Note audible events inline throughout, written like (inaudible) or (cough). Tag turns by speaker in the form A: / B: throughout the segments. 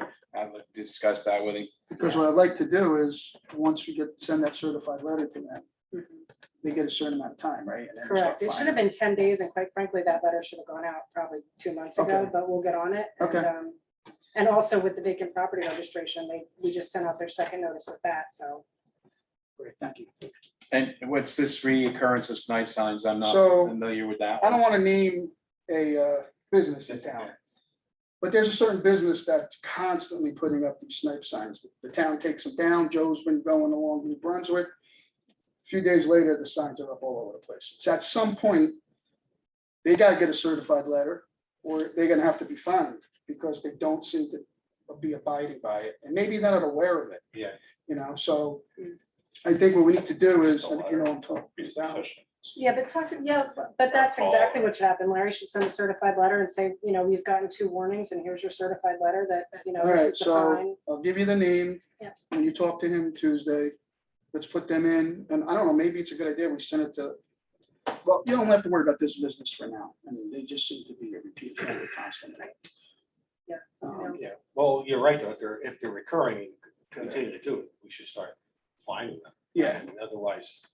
A: want to discuss that with him.
B: Because what I'd like to do is, once we get, send that certified letter to them,
C: Mhm.
B: they get a certain amount of time, right? And then start
C: Correct. It should have
B: filing.
C: been ten days and quite frankly, that letter should have gone out probably two months ago,
B: Okay.
C: but we'll get on it. and,
B: Okay.
C: um, And also with the vacant property registration, they, we just sent out their second notice with that, so.
B: Great, Thank you.
A: And what's this reoccurrence of snipe signs? I'm not
B: So-
A: familiar with that.
B: I don't want to name a uh, business in town. But there's a certain business that's constantly putting up these snipe signs. The town takes them down. Joe's been going along New Brunswick. A Few days later, the signs are up all over the place. So at some point, they gotta get a certified letter or they're gonna have to be fined because they don't seem to be abiding by it. And maybe they're not aware of it.
A: Yeah.
B: You know, so I think what we need to do is, and you know, I'm talking.
C: Yeah, but talk to, yeah, but- but that's exactly what should happen. Larry should send a certified letter and say, you know, you've gotten two warnings and here's your certified letter that, you know,
B: All right,
C: this is the
B: so-
C: fine.
B: I'll give you the name.
C: Yep.
B: When you talk to him Tuesday, let's put them in, and I don't know, maybe it's a good idea, we send it to. Well, you don't have to worry about this business for now, I mean, they just seem to be a repeat offender constantly.
C: Yeah,
B: Um,
D: Yeah, well, you're right, though, if they're, if they're recurring, continue to do it, we should start finding them.
B: Yeah,
D: I mean, Otherwise.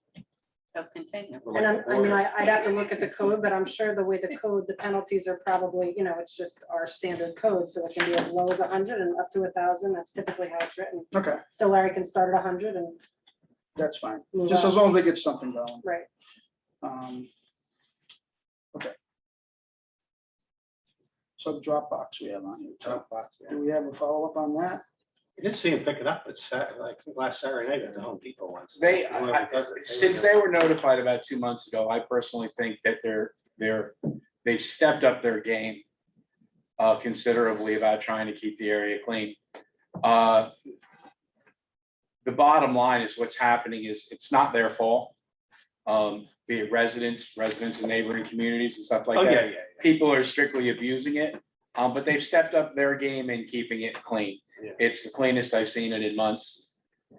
E: Self-contained.
D: we're
C: And
D: like
C: I'm,
D: the
C: I mean,
D: border.
C: I, I'd have to look at the code, but I'm sure the way the code, the penalties are probably, you know, it's just our standard code, so it can be as low as hundred and up to a thousand, that's typically how it's written.
B: okay,
C: So Larry can start at hundred and,
B: that's fine,
C: Move
B: just
C: on.
B: as long as they get something going.
C: right,
B: Um, Okay. So the Dropbox we have on here,
D: Oh,
B: Dropbox, do we have a follow-up on that?
D: I did see him pick it up, it's Sat, like last Saturday night at the Home Depot once.
A: They,
D: Whoever
A: I- I-
D: does it, they
A: since
D: would
A: they were notified about two months ago, I personally think that they're, they're, they stepped up their game uh, considerably about trying to keep the area clean. Uh, The bottom line is what's happening is it's not their fault. Um, Be it residents, residents in neighboring communities and stuff
D: know. Oh,
A: like
D: yeah,
A: that.
D: yeah, yeah.
A: People are strictly abusing it, um, but they've stepped up their game in keeping it clean.
D: Yeah.
A: It's the cleanest I've seen it in months.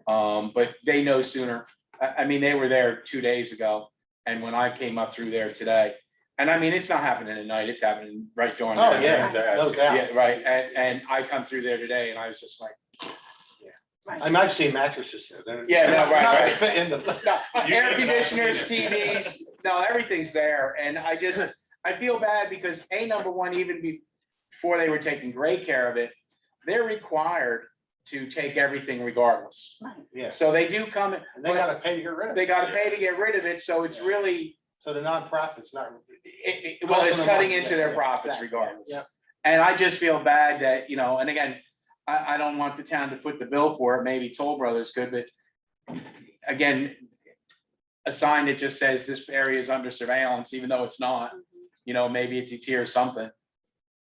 A: Um, but they know sooner. I, I mean, they were there two days ago and when I came up through there today. And I mean, it's not happening at night, it's happening right during. the
D: Oh,
A: day.
D: yeah, no doubt.
A: Yeah, right. And, and I come through there today and I was just like,
D: I mean, I've seen mattresses here. they're-
A: Yeah, no,
D: not-
A: right,
D: not
A: right.
D: fit in the-
A: no,
D: (laughs) You
A: air
D: could not see
A: conditioners,
D: it.
A: TVs, no, everything's there. And I just, I feel bad because A, number one, even be- before they were taking great care of it, they're required to take everything regardless.
D: Yeah,
A: So they do come,
D: and they gotta pay to get rid of it.
A: they gotta pay to get rid of it, so it's
D: Yeah.
A: really,
D: So the nonprofit's not.
A: it, it- well,
D: Costing
A: it's
D: them
A: cutting
D: money,
A: into
D: yeah,
A: their
D: yeah,
A: profits
D: exactly,
A: regardless.
D: yeah.
A: And I just feel bad that, you know, and again, I, I don't want the town to foot the bill for it, maybe Toll Brothers could, but again, a sign that just says this area is under surveillance, even though it's not, you know, maybe it deters something,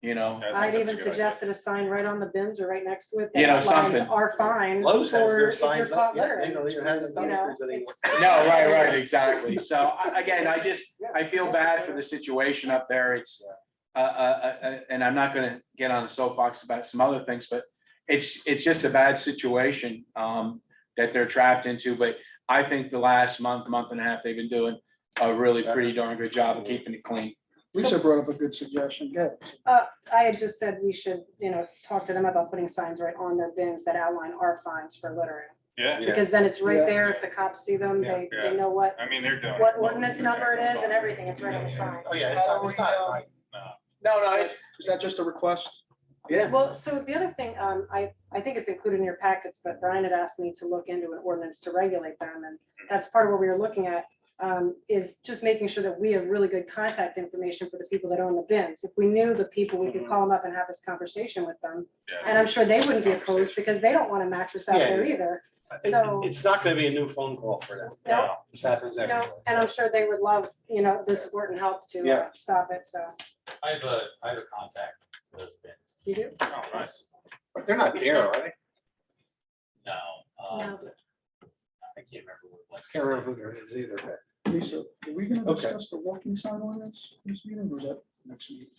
A: you know?
C: I'd even suggested a sign right on the bins or right next to it. that
A: You know,
C: outlines
A: something.
C: Are fine.
D: Lowe's has
C: for
D: their
C: if you're
D: signs up,
C: caught
D: yeah,
C: littering,
D: they don't even have the
C: you know,
D: dumpsters anymore.
C: it's-
A: No, right, right, exactly. So I- again, I just, I feel bad for the situation up there. It's, uh, uh, uh, uh, and I'm not gonna get on a soapbox about some other things, but it's, it's just a bad situation, um, that they're trapped into. But I think the last month, month and a half, they've been doing a really pretty darn good job of keeping it clean.
B: Lisa brought up a good suggestion, good.
C: I had just said we should, you know, talk to them about putting signs right on their bins that outline our fines for littering.
F: Yeah,
D: Yeah.
C: Because then it's right
B: Yeah.
C: there. If the cops see them,
D: Yeah.
C: they, they know what,
F: I mean, they're doing.
C: what ordinance number it is and everything. It's right on the sign.
D: Oh, yeah, it's not, it's not.
B: How are we,
A: No, no,
B: it's- Is that just a request?
A: yeah.
C: Well, so the other thing, um, I, I think it's included in your packets, but Brian had asked me to look into an ordinance to regulate them, and that's part of what we were looking at, um, is just making sure that we have really good contact information for the people that own the bins. If we knew the people, we
D: Mm-hmm.
C: could call them up and have this conversation with them, and I'm sure they wouldn't be opposed, because they don't want a mattress out
D: Yeah,
C: there
D: yeah.
C: either.
D: It-
C: So-
D: It's not gonna be a new phone call for them.
C: No.
D: This happens
C: You
D: everywhere.
C: know, and I'm sure they would love, you know, the support and help to uh,
D: Yeah.
C: stop it, so.
G: I have a, I have a contact for those bins.
C: You do?
A: Oh,
D: But they're not there, are they?
G: No. um,
C: No.
G: I can't remember what it
D: I
G: was.
D: can't remember who there is either, but
B: Lisa, are we gonna
D: Okay.
B: discuss the walking sign ordinance this meeting or is that next meeting?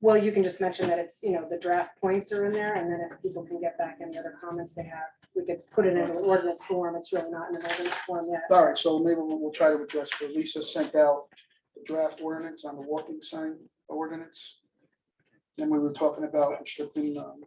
C: Well, you can just mention that it's, you know, the draft points are in there, and then if people can get back any other comments they have, we could put it in an ordinance form, it's really not in an ordinance form yet.
B: All right, so maybe we'll, we'll try to address, but Lisa sent out the draft ordinance on the walking sign ordinance. Then we were talking about restricting um,